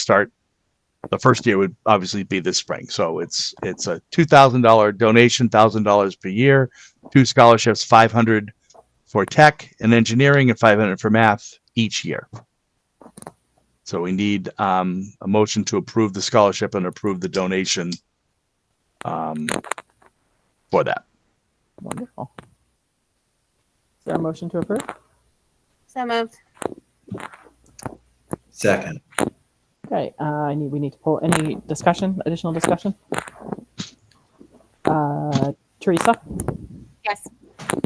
start. The first year would obviously be this spring. So it's it's a two thousand dollar donation, thousand dollars per year, two scholarships, five hundred for tech and engineering, and five hundred for math each year. So we need um, a motion to approve the scholarship and approve the donation um, for that. Wonderful. Is there a motion to approve? So moved. Second. Okay, uh, I need, we need to pull any discussion, additional discussion? Uh, Teresa, Yes.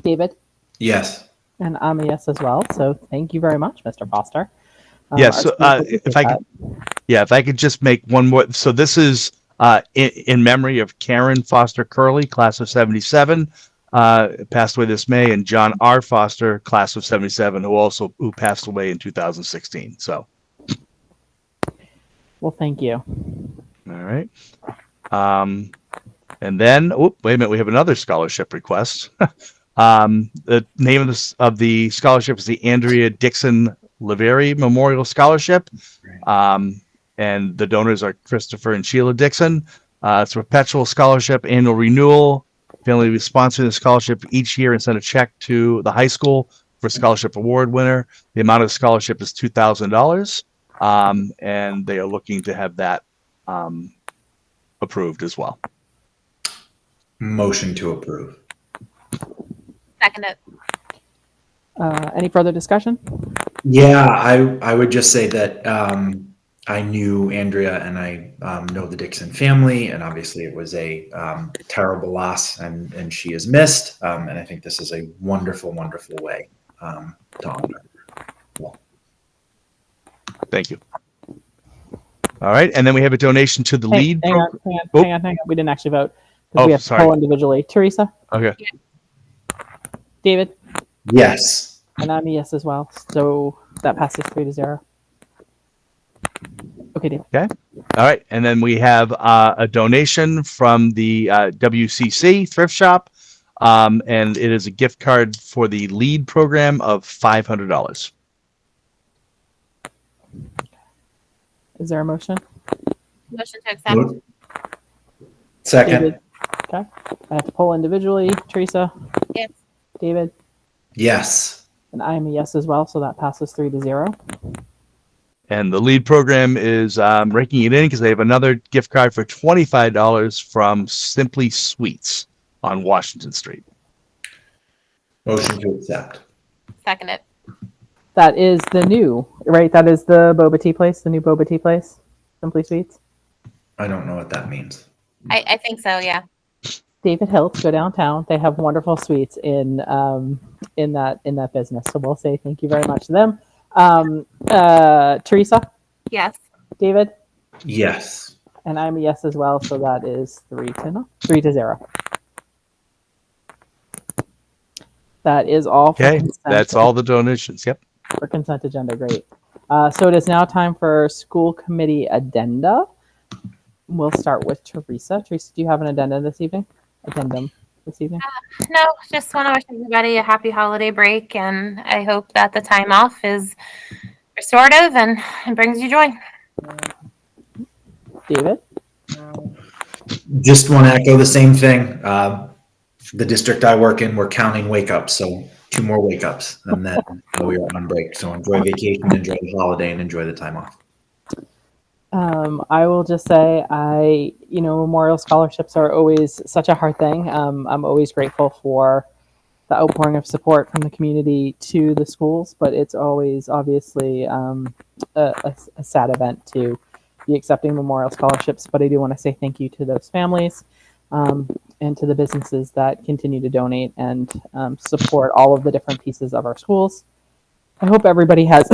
David, Yes. and I'm a yes as well. So thank you very much, Mr. Foster. Um, Yes, our so, uh, students if I appreciate could- Yeah, if I could just make one more. So this is uh, in, in memory of Karen Foster Curley, class of 77, uh, passed away this May, and John R. Foster, class of 77, who also who passed away in 2016. So, that. Well, thank you. all right. Um, and then, oop, wait a minute, we have another scholarship request. um, the name of, this, of the scholarship is the Andrea Dixon Laveri Memorial Scholarship. Um, and the donors are Christopher and Sheila Dixon. Uh, it's a perpetual scholarship, annual renewal. Family will be sponsoring the scholarship each year and send a check to the high school for scholarship award winner. The amount of the scholarship is two thousand dollars, um, and they are looking to have that um, approved as well. Motion to approve. Second it. Uh, any further discussion? Yeah, I, I would just say that um, I knew Andrea and I um, know the Dixon family, and obviously it was a um, terrible loss, and, and she is missed. Um, and I think this is a wonderful, wonderful way um, to honor. Thank you. All right, and then we have a donation to the Hang- lead. Hang pro- on, hang Oh. on, hang on, hang on. We didn't actually vote. 'cause Oh, we have to sorry. poll individually. Teresa, okay, David, Yes. And I'm a yes as well. So that passes three to zero. Okay, Dave. all right, and then we have uh, a donation from the uh, WCC thrift shop, um, and it is a gift card for the lead program of five hundred dollars. Is there a motion? Motion to accept. Second. David. Okay. I have to poll individually. Teresa, Yes. David, Yes. and I am a yes as well. So that passes three to zero. And the lead program is um, raking it in because they have another gift card for twenty-five dollars from Simply Sweets on Washington Street. Motion to accept. Second it. That is the new, right? That is the boba tea place, the new boba tea place, Simply Sweets. I don't know what that means. I, I think so, yeah. David Hiltz, go downtown. They have wonderful sweets in um, in that in that business. So we'll say thank you very much to them. Um, uh, Teresa, Yes. David, Yes. And I'm a yes as well, so that is three to no, three to zero. That is all. for Okay, consent- that's all the donations. Yep. for consent agenda. Great. Uh, so it is now time for school committee addenda. We'll start with Teresa. Teresa, do you have an addenda this evening? Addendum this evening. No, just want to wish everybody a happy holiday break and I hope that the time off is restorative and, and brings you joy. David, Just want to echo the same thing. Uh, the district I work in, we're counting wake ups. So two more wake ups and then we are on break. So enjoy vacation, enjoy the holiday, and enjoy the time off. um, I will just say I, you know, memorial scholarships are always such a hard thing. Um, I'm always grateful for the outpouring of support from the community to the schools, but it's always obviously um, a, a, a sad event to be accepting memorial scholarships. But I do want to say thank you to those families um, and to the businesses that continue to donate and um, support all of the different pieces of our schools. I hope everybody has,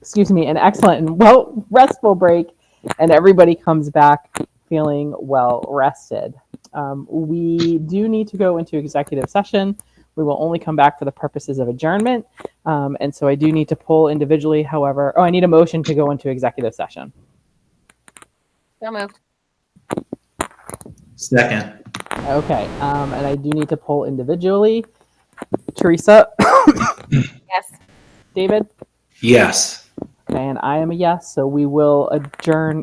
excuse me, an excellent and well restful break, and everybody comes back feeling well rested. Um, we do need to go into executive session. We will only come back for the purposes of adjournment. Um, and so I do need to pull individually, however, oh, I need a motion to go into executive session. So moved. Second. Okay. Um, and I do need to pull individually. Teresa, Yes. David, Yes. and I am a yes, so we will adjourn